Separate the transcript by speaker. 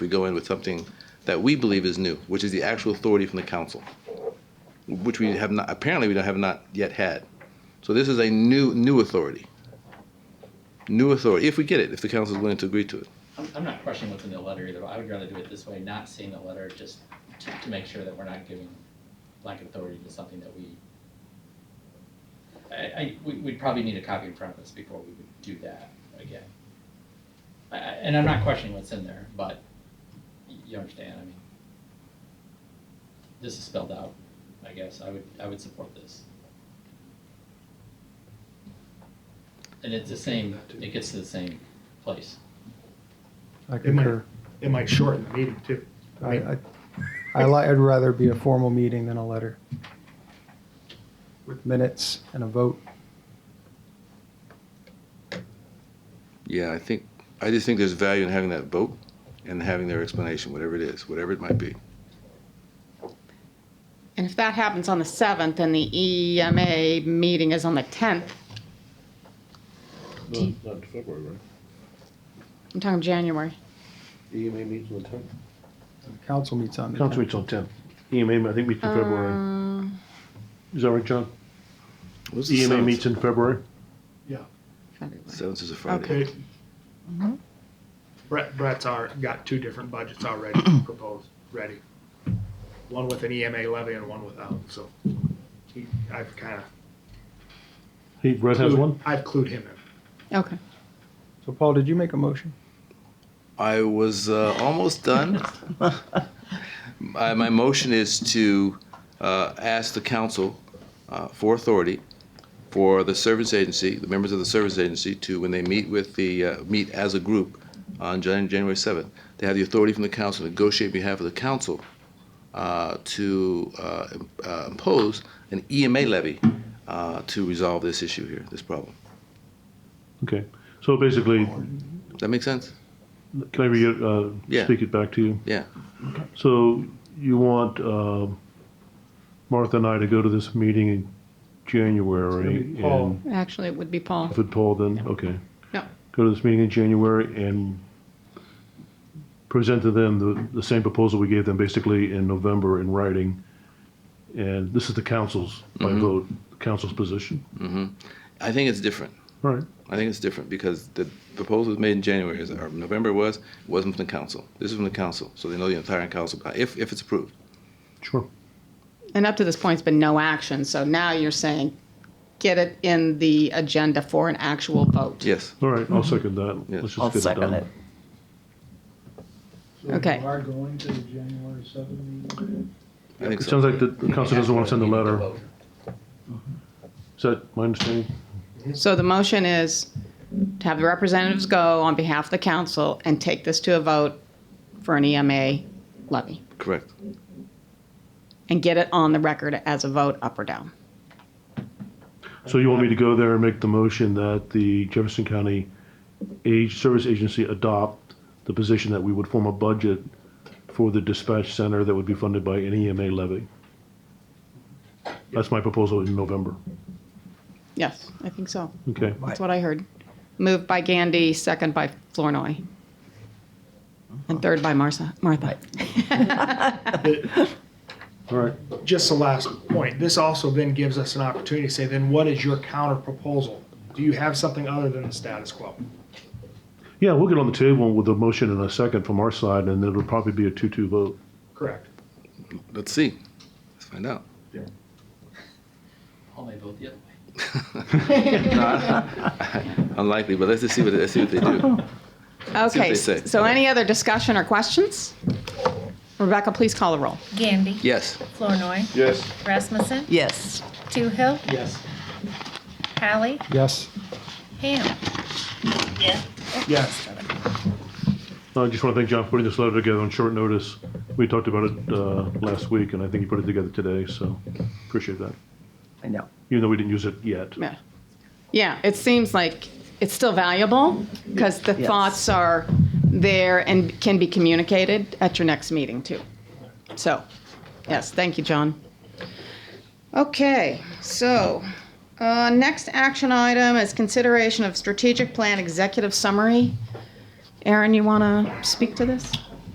Speaker 1: we go in with something that we believe is new, which is the actual authority from the council, which we have not, apparently we don't have not yet had. So this is a new, new authority. New authority, if we get it, if the council is willing to agree to it.
Speaker 2: I'm, I'm not questioning what's in the letter either, but I would rather do it this way, not seeing the letter, just to, to make sure that we're not giving blank authority to something that we. I, I, we, we'd probably need a copy in front of us before we would do that again. I, I- and I'm not questioning what's in there, but y- you understand, I mean. This is spelled out, I guess, I would, I would support this. And it's the same, it gets to the same place.
Speaker 3: I
Speaker 4: It might,
Speaker 3: concur.
Speaker 4: it might shorten the meeting too.
Speaker 3: I, I, I li- I'd rather be a formal meeting than a letter. With minutes and a vote.
Speaker 1: Yeah, I think, I just think there's value in having that vote and having their explanation, whatever it is, whatever it might be.
Speaker 5: And if that happens on the 7th and the EMA meeting is on the 10th,
Speaker 6: Not, not in February, right?
Speaker 5: I'm talking January.
Speaker 6: EMA E meets on the tenth?
Speaker 3: The Council meets on the
Speaker 6: Council
Speaker 3: 10th.
Speaker 6: meets on tenth. EMA, I think meets in February.
Speaker 5: Uh,
Speaker 6: Is that right, John?
Speaker 1: What's the
Speaker 6: EMA
Speaker 1: seventh?
Speaker 6: meets in February?
Speaker 5: February.
Speaker 1: Seventh is a Friday.
Speaker 4: They- Brett, Brett's are, got two different budgets already proposed, ready. One with an EMA levy and one without, so he, I've kinda.
Speaker 6: He, Brett has one?
Speaker 4: I've clued him in.
Speaker 5: Okay.
Speaker 3: So Paul, did you make a motion?
Speaker 1: I was uh, almost done. My my motion is to uh, ask the council uh, for authority for the service agency, the members of the service agency, to, when they meet with the, uh, meet as a group on Jan- January 7th, they have the authority from the council to negotiate on behalf of the council uh, to uh, im- uh, impose an EMA levy uh, to resolve this issue here, this problem.
Speaker 6: Okay. So basically,
Speaker 1: That make sense?
Speaker 6: can I re, uh,
Speaker 1: Yeah.
Speaker 6: speak it back to you?
Speaker 1: Yeah.
Speaker 6: So you want, um, Martha and I to go to this meeting in January
Speaker 3: It's gonna be Paul.
Speaker 6: and,
Speaker 5: Actually, it would be Paul.
Speaker 6: if it Paul then, okay.
Speaker 5: No.
Speaker 6: Go to this meeting in January and present to them the, the same proposal we gave them basically in November in writing. And this is the council's, by
Speaker 1: Mm-hmm.
Speaker 6: vote, council's position.
Speaker 1: I think it's different.
Speaker 6: All right.
Speaker 1: I think it's different because the proposal was made in January, is- or November it was, it wasn't from the council. This is from the council, so they know the entire council, uh, if, if it's approved.
Speaker 6: Sure.
Speaker 5: And up to this point, it's been no action. So now you're saying get it in the agenda for an actual vote.
Speaker 1: Yes,
Speaker 6: All right.
Speaker 3: Mm-hmm.
Speaker 6: I'll second that.
Speaker 1: Yes.
Speaker 6: Let's
Speaker 7: I'll
Speaker 6: just get it
Speaker 7: second
Speaker 6: done.
Speaker 7: it.
Speaker 5: Okay.
Speaker 8: So you are going to the January seventh meeting?
Speaker 1: I think
Speaker 6: It
Speaker 1: so.
Speaker 6: sounds like the the council doesn't want to send a letter.
Speaker 2: Vote.
Speaker 6: Is that my understanding?
Speaker 5: So the motion is to have the representatives go on behalf of the council and take this to a vote for an EMA levy
Speaker 1: Correct.
Speaker 5: and get it on the record as a vote up or down.
Speaker 6: So you want me to go there and make the motion that the Jefferson County Age Service Agency adopt the position that we would form a budget for the dispatch center that would be funded by an EMA levy? That's my proposal in November.
Speaker 5: Yes, I think so.
Speaker 6: Okay.
Speaker 5: That's what I heard. Moved by Gandy, second by Flournoy. And third by Martha. Martha.
Speaker 6: All right.
Speaker 4: Just the last point, this also then gives us an opportunity to say, then what is your counter proposal? Do you have something other than the status quo?
Speaker 6: Yeah, we'll get on the table with a motion in a second from our side, and it'll probably be a two-two vote.
Speaker 4: Correct.
Speaker 1: Let's see. Let's find out.
Speaker 2: Paul may vote the other way.
Speaker 1: Unlikely, but let's just see what, let's see what they do. what
Speaker 5: Okay,
Speaker 1: they say.
Speaker 5: so any other discussion or questions? Rebecca, please call the roll.
Speaker 9: Gandy.
Speaker 1: Yes,
Speaker 9: Flournoy.
Speaker 6: Yes.
Speaker 9: Rasmussen.
Speaker 7: Yes,
Speaker 9: Toohill.
Speaker 2: Yes.
Speaker 9: Hallie.
Speaker 3: Yes.
Speaker 9: Ham.
Speaker 4: Yes.
Speaker 6: I just want to thank John for putting this letter together on short notice. We talked about it uh, last week, and I think he put it together today, so appreciate that,
Speaker 7: I know.
Speaker 6: even though we didn't use it yet.
Speaker 5: Yeah. Yeah, it seems like it's still valuable because the
Speaker 7: Yes.
Speaker 5: thoughts are there and can be communicated at your next meeting too. So, yes, thank you, John. Okay, so, uh, next action item is consideration of strategic plan executive summary. Aaron, you want to speak to this?